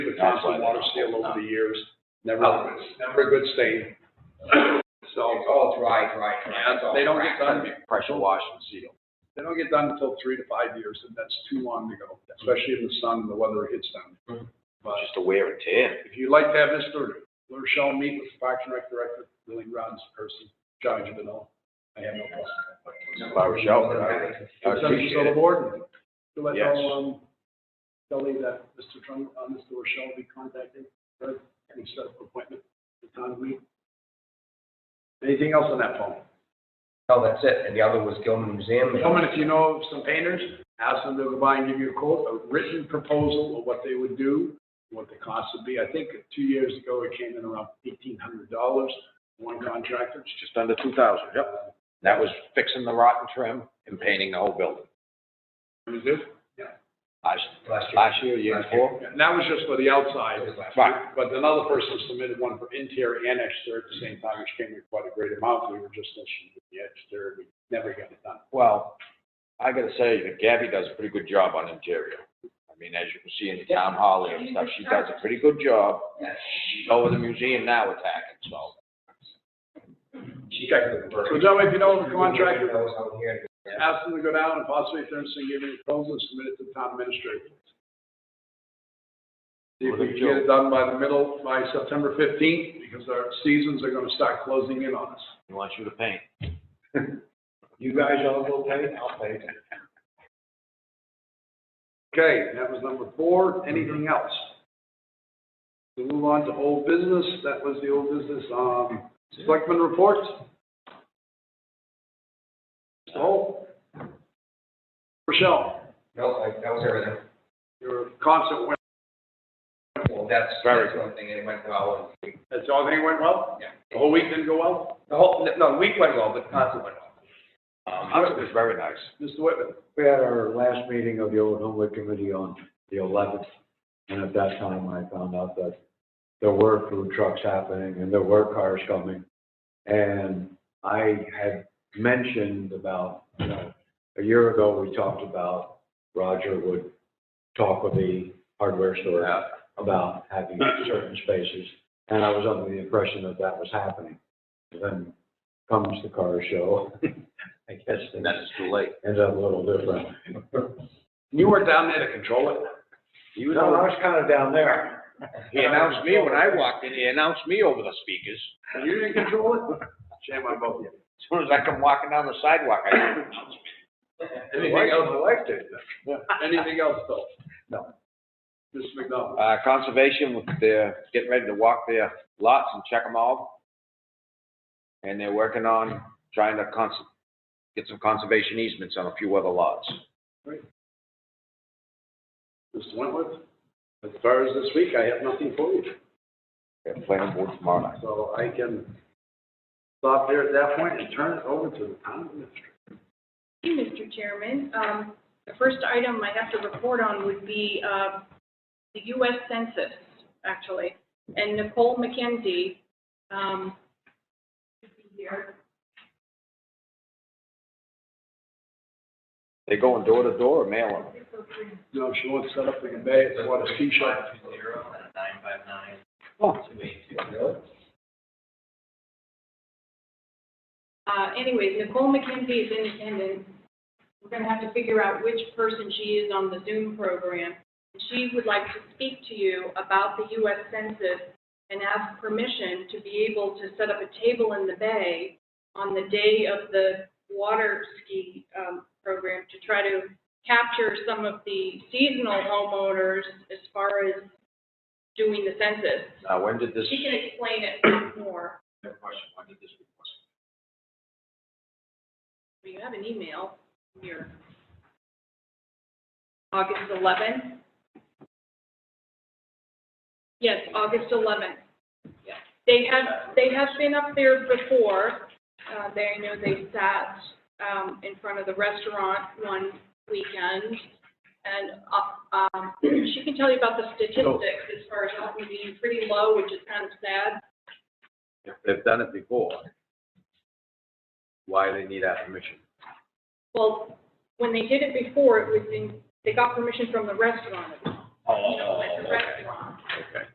constant water seal over the years, Oh. never, never a good stain. So, It's all dry, dry, dry. It's all they don't dry. get done, pressure wash and seal. they don't get done until three to five years, and that's too long to go, especially in the sun and the weather hits Mm-hmm. them. But Just a wear and tear. if you'd like to have this through, let Shell meet with Parks and Rec Director, Billy Ron's person, John Javino. I have no problem. If I were Sheldon, I would Send it to appreciate the it. board, and to let Yes. all, um, tell me that Mr. Trump, uh, Mr. Rochelle will be contacting, Fred, and set up an appointment, the time we. Anything else on that phone? No, that's it. And the other was Gilman Museum. and- Gentlemen, if you know of some painters, ask them to go by and give you a quote, a written proposal of what they would do, what the cost would be. I think two years ago, it came in around eighteen hundred dollars, one contractor. It's just under two thousand, yep. That was fixing the rotten trim and painting the whole building. It was it? Last, Last year. last year, year Last year. before. And that was just for the outside. It was last Right, But another person submitted one for interior and exterior at the same time, which came in quite a great amount. We were just issued with the exterior, we never got it done. well, I gotta say that Gabby does a pretty good job on interior. I mean, as you can see in the town hall and stuff, she does a pretty good job. She's over the museum now attacking, so. She got the bird. So gentlemen, if you know of a contractor, Those out here. ask them to go down and possibly if they're interested, give me a proposal and submit it to the town administrator. See if we can get it done by the middle, by September fifteenth, because our seasons are gonna start closing in on us. He wants you to paint. You guys all will pay, I'll pay. Okay, that was number four. Anything else? We move on to old business. That was the old business, um, selectmen report. So, Rochelle, No, I- that was everything. your concert went, Well, that's, Very that's one thing. And it went well. and we- that's all thing went well? Yeah. The whole week didn't go well? The whole, no, the week went well, but the concert went well. Um, it was very nice. Mr. Whitman? We had our last meeting of the Old Homewood Committee on the eleventh, and at that time, I found out that there were food trucks happening and there were cars coming. And I had mentioned about, you know, a year ago, we talked about Roger would talk with the hardware store about having certain spaces, and I was under the impression that that was happening. Then comes the car show, I guess. And then it's too late. Ends up a little different. You were down there to control it? He was No, I over- was kind of down there. He announced me when I walked in, he announced me over the speakers. And You didn't control it? Shame on both of you. As soon as I come walking down the sidewalk, I heard an announcement. Anything else? elected. Anything else, though? No. Mr. McDonald? Uh, conservation, with their, getting ready to walk their lots and check them all. And they're working on trying to cons, get some conservation easements on a few other lots. Mr. Wentworth? As far as this week, I have nothing for you. They're planning board tomorrow night. So I can stop there at that point and turn it over to the town administrator. Thank you, Mr. Chairman. Um, The first item I have to report on would be uh, the U.S. Census, actually. And Nicole McKenzie um, should be here. They going door to door or mailing? You know, she wants to set up the convey, it's what a ski shop. Five two zero and a nine five nine Oh, two eight two. Really? Uh, Anyways, Nicole McKenzie is independent. We're going to have to figure out which person she is on the Zoom program. She would like to speak to you about the U.S. Census and ask permission to be able to set up a table in the bay on the day of the water ski um, program to try to capture some of the seasonal homeowners as far as doing the census. now when did this, She can explain it more. that question, when did this request? Well, You have an email here. August 11th? Yes, August 11th. Yeah. They have, they have been up there before. Uh, They, I know they sat um, in front of the restaurant one weekend. And uh, um, she can tell you about the statistics as far as how being pretty low, which is kind of sad. If they've done it before, why they need that permission? Well, Oh, when they did it before, it was in, they got permission from the restaurant. You know, at the restaurant.